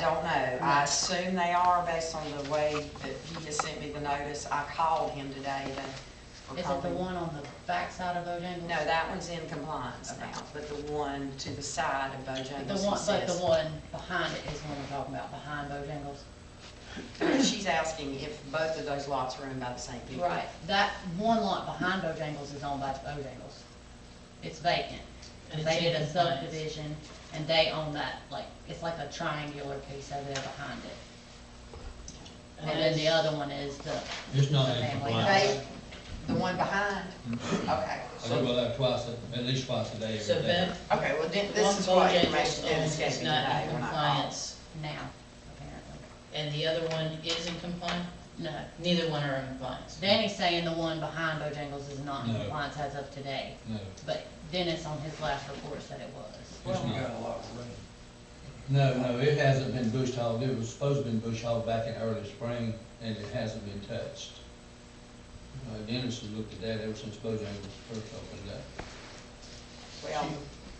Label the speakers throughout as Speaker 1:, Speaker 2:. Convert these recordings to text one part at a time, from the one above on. Speaker 1: don't know. I assume they are based on the way that he has sent me the notice. I called him today to.
Speaker 2: Is it the one on the backside of Bojangles?
Speaker 1: No, that one's in compliance now, but the one to the side of
Speaker 2: But The
Speaker 1: Bojangles, he
Speaker 2: one, but the
Speaker 1: says.
Speaker 2: one behind it is the one we're talking about, behind Bojangles?
Speaker 1: She's asking if both of those lots are owned by the same people.
Speaker 2: Right, that one lot behind Bojangles is owned by Bojangles. It's vacant.
Speaker 3: And
Speaker 2: They
Speaker 3: it's
Speaker 2: did
Speaker 3: in
Speaker 2: a
Speaker 3: compliance.
Speaker 2: subdivision and they own that, like, it's like a triangular piece over there behind it. And then the other one is the.
Speaker 4: It's not
Speaker 2: the
Speaker 4: in
Speaker 2: family
Speaker 4: compliance.
Speaker 2: home.
Speaker 1: The one behind? Okay.
Speaker 4: Mm-hmm. I go by there twice, a- at least twice a day
Speaker 3: So
Speaker 4: every day.
Speaker 3: that,
Speaker 1: Okay, well, then,
Speaker 3: one
Speaker 1: this is what information
Speaker 3: Bojangles
Speaker 1: Dennis
Speaker 3: owns
Speaker 1: gave
Speaker 3: is
Speaker 1: me
Speaker 3: not
Speaker 1: today
Speaker 3: in
Speaker 1: when I called.
Speaker 3: compliance,
Speaker 2: Now, apparently.
Speaker 3: and the other one is in compliance,
Speaker 2: No,
Speaker 3: neither one are in compliance.
Speaker 2: Danny's saying the one behind Bojangles is not in
Speaker 4: No.
Speaker 2: compliance as of today,
Speaker 4: No,
Speaker 2: but Dennis on his last report said it was.
Speaker 4: it's
Speaker 5: We
Speaker 4: not.
Speaker 5: got a lot of rain.
Speaker 4: No, no, it hasn't been bush hogged. It was supposed to be bush hogged back in early spring, and it hasn't been touched. Uh, Dennis has looked at that ever since Bojangles first opened up.
Speaker 1: Well,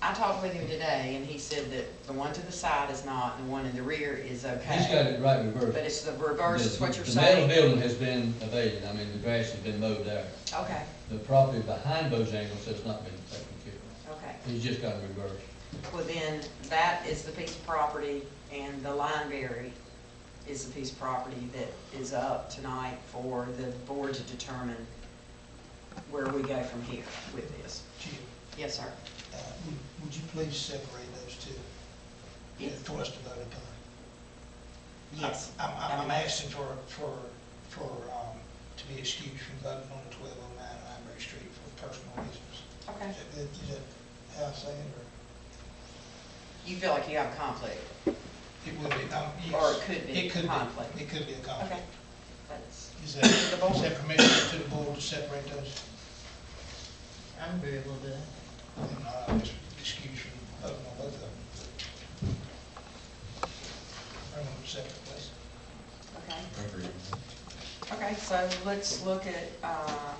Speaker 1: I talked with him today, and he said that the one to the side is not, and the one in the rear is
Speaker 4: He's got
Speaker 1: okay.
Speaker 4: it right
Speaker 1: But
Speaker 4: reversed.
Speaker 1: it's the reverse is what you're
Speaker 4: The- The metal
Speaker 1: saying?
Speaker 4: building has been evaded, I mean, the grass has been mowed there.
Speaker 1: Okay,
Speaker 4: The property behind Bojangles has not been taken care of.
Speaker 1: okay.
Speaker 4: He's just got it reversed.
Speaker 1: Well, then, that is the piece of property, and the Lineberry is the piece of property that is up tonight for the board to determine where we go from here with this.
Speaker 5: Gee,
Speaker 1: Yes, sir?
Speaker 5: uh, would- Would you please separate those two?
Speaker 1: Yes.
Speaker 5: Twice to vote upon.
Speaker 1: Yes.
Speaker 5: I'm, I'm, I'm asking for, for, for, um, to be excused from voting on the twelve oh nine Library Street for personal reasons.
Speaker 1: Okay.
Speaker 5: Is that- is that how I say it, or?
Speaker 1: You feel like you have a conflict?
Speaker 5: It would be, um, yes.
Speaker 1: Or it could be
Speaker 5: It could
Speaker 1: conflict.
Speaker 5: be, it could be a
Speaker 1: Okay.
Speaker 5: conflict.
Speaker 1: That's-
Speaker 5: Is that, is that permission to the board to separate those?
Speaker 3: I'm agreeable to that.
Speaker 5: Then I'll just excuse from voting on both of them. I want to separate those.
Speaker 1: Okay. Okay, so let's look at um,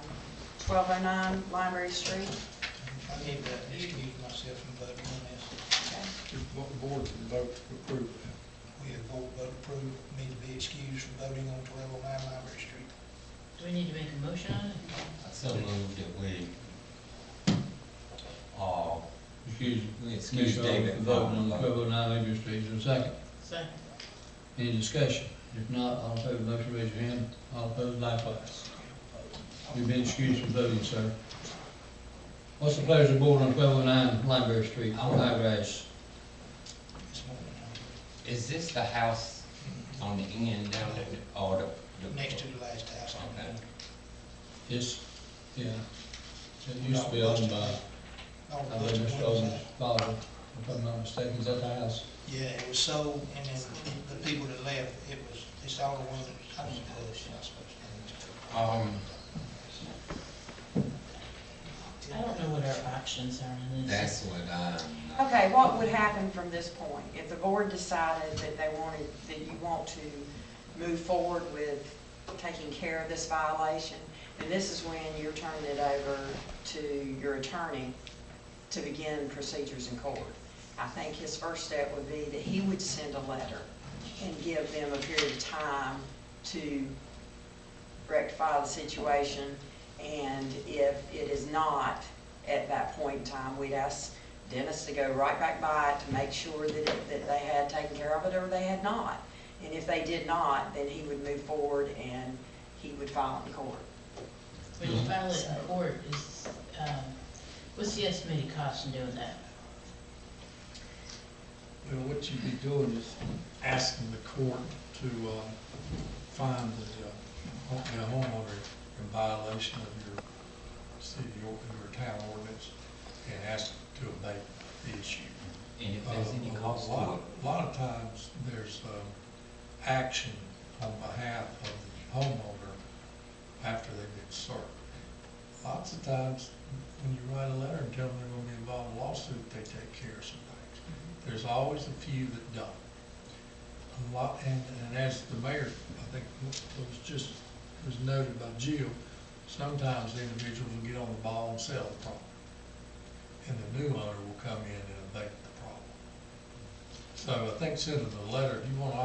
Speaker 1: twelve oh nine Library Street.
Speaker 5: I need to excuse myself from voting on this.
Speaker 6: What the board can vote to approve that.
Speaker 5: We have vote, vote approved, me to be excused from voting on twelve oh nine Library Street.
Speaker 3: Do we need to make a motion on it?
Speaker 7: I still move that we, uh,
Speaker 4: Excuse me.
Speaker 7: Excuse
Speaker 4: Commissioner,
Speaker 7: David.
Speaker 4: Voting on the twelve oh nine Liberty Street, is there a second?
Speaker 3: Second.
Speaker 4: Any discussion? If not, all in favor of the motion, raise your hand. All opposed, likewise. You've been excused from voting, sir. What's the pleasure of the board on twelve oh nine Library Street, on high grass?
Speaker 5: This morning,
Speaker 7: is this the house on the end down there, or the? the-
Speaker 5: next to the last house. on the corner.
Speaker 4: It's, yeah, it used to be owned by,
Speaker 5: All
Speaker 4: I
Speaker 5: those
Speaker 4: believe, Mr.
Speaker 5: ones
Speaker 4: Owen's
Speaker 5: that-
Speaker 4: father, if I'm not mistaken, is that the house?
Speaker 5: Yeah, it was sold, and then the people that left, it was, it's all the ones that, I don't know, it's not supposed to.
Speaker 7: Um,
Speaker 3: I don't know what our options are on this.
Speaker 7: that's what I'm. not-
Speaker 1: Okay, what would happen from this point? If the board decided that they wanted, that you want to move forward with taking care of this violation, then this is when you're turning it over to your attorney to begin procedures in court. I think his first step would be that he would send a letter and give them a period of time to rectify the situation. And if it is not at that point in time, we'd ask Dennis to go right back by it to make sure that, it- that they had taken care of it or they had not. And if they did not, then he would move forward and he would file it in court.
Speaker 3: When you file it in court, is, um, what's the estimated cost in doing that?
Speaker 6: Well, what you'd be doing is asking the court to, um, find the, uh, home- the homeowner in violation of your city or your town ordinance and ask to abate the issue.
Speaker 7: And if
Speaker 6: Uh,
Speaker 7: there's any
Speaker 6: a lot-
Speaker 7: cost to
Speaker 6: lot-
Speaker 7: it.
Speaker 6: A lot of times, there's, um, action on behalf of the homeowner after they've been served. Lots of times, when you write a letter and tell them they're gonna be involved in a lawsuit, they take care of some things.
Speaker 7: Mm-hmm.
Speaker 6: There's always a few that don't. A lot, and, and as the mayor, I think, it was just, was noted by Jill, sometimes the individuals will get on the ball and sell the property. And the new owner will come in and abate the problem. So I think send them a letter, if you want to